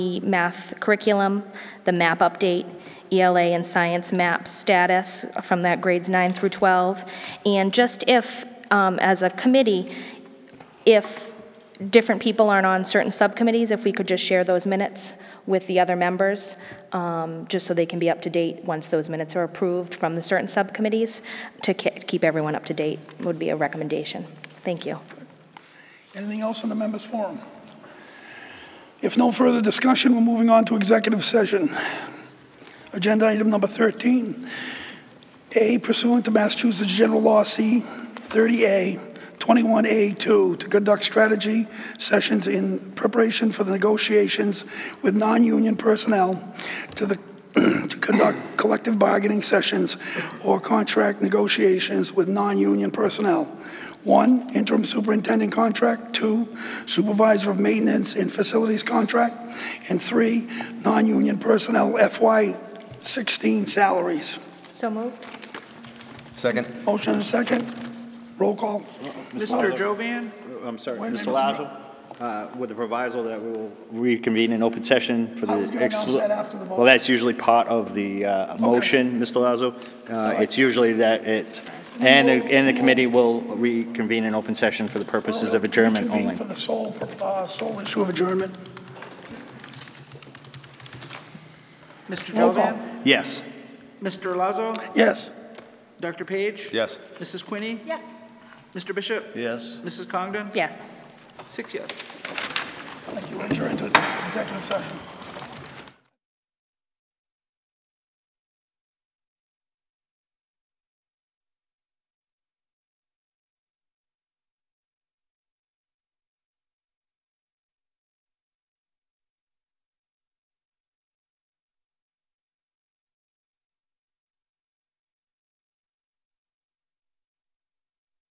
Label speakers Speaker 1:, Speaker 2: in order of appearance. Speaker 1: the math curriculum, the map update, ELA and science map status from that grades 9 through 12, and just if, um, as a committee, if different people aren't on certain subcommittees, if we could just share those minutes with the other members, um, just so they can be up to date once those minutes are approved from the certain subcommittees, to ke- keep everyone up to date would be a recommendation. Thank you.
Speaker 2: Anything else on the members' forum? If no further discussion, we're moving on to executive session. Agenda item number 13. A pursuant to Massachusetts General Law C 30A 21A2 to conduct strategy sessions in preparation for the negotiations with non-union personnel to the to conduct collective bargaining sessions or contract negotiations with non-union personnel. One, interim superintendent contract. Two, supervisor of maintenance and facilities contract. And three, non-union personnel FY16 salaries.
Speaker 1: So moved.
Speaker 3: Second.
Speaker 2: Motion and second. Roll call.
Speaker 4: Mr. Jovan?
Speaker 5: I'm sorry,
Speaker 2: Wait a
Speaker 5: Mr.
Speaker 2: minute.
Speaker 5: Lazo, uh, with the proviso that we will reconvene in open session for the...
Speaker 2: I was gonna announce
Speaker 5: exclu-
Speaker 2: that after the vote.
Speaker 5: Well, that's usually part of the uh, motion, Mr. Lazo. Uh, It's usually that it, and, the- and the committee will reconvene in open session for the purposes of adjournment
Speaker 2: Convene
Speaker 5: only.
Speaker 2: For the sole, uh, sole issue of adjournment.
Speaker 4: Mr.
Speaker 2: Roll call.
Speaker 4: Jovan?
Speaker 5: Yes.
Speaker 4: Mr. Lazo?
Speaker 2: Yes.
Speaker 4: Dr. Page?
Speaker 3: Yes.
Speaker 4: Mrs. Quinney?
Speaker 1: Yes.
Speaker 4: Mr. Bishop?
Speaker 3: Yes.
Speaker 4: Mrs. Congdon?
Speaker 1: Yes.
Speaker 4: Six yes.
Speaker 2: Thank you. Adjourned to executive session.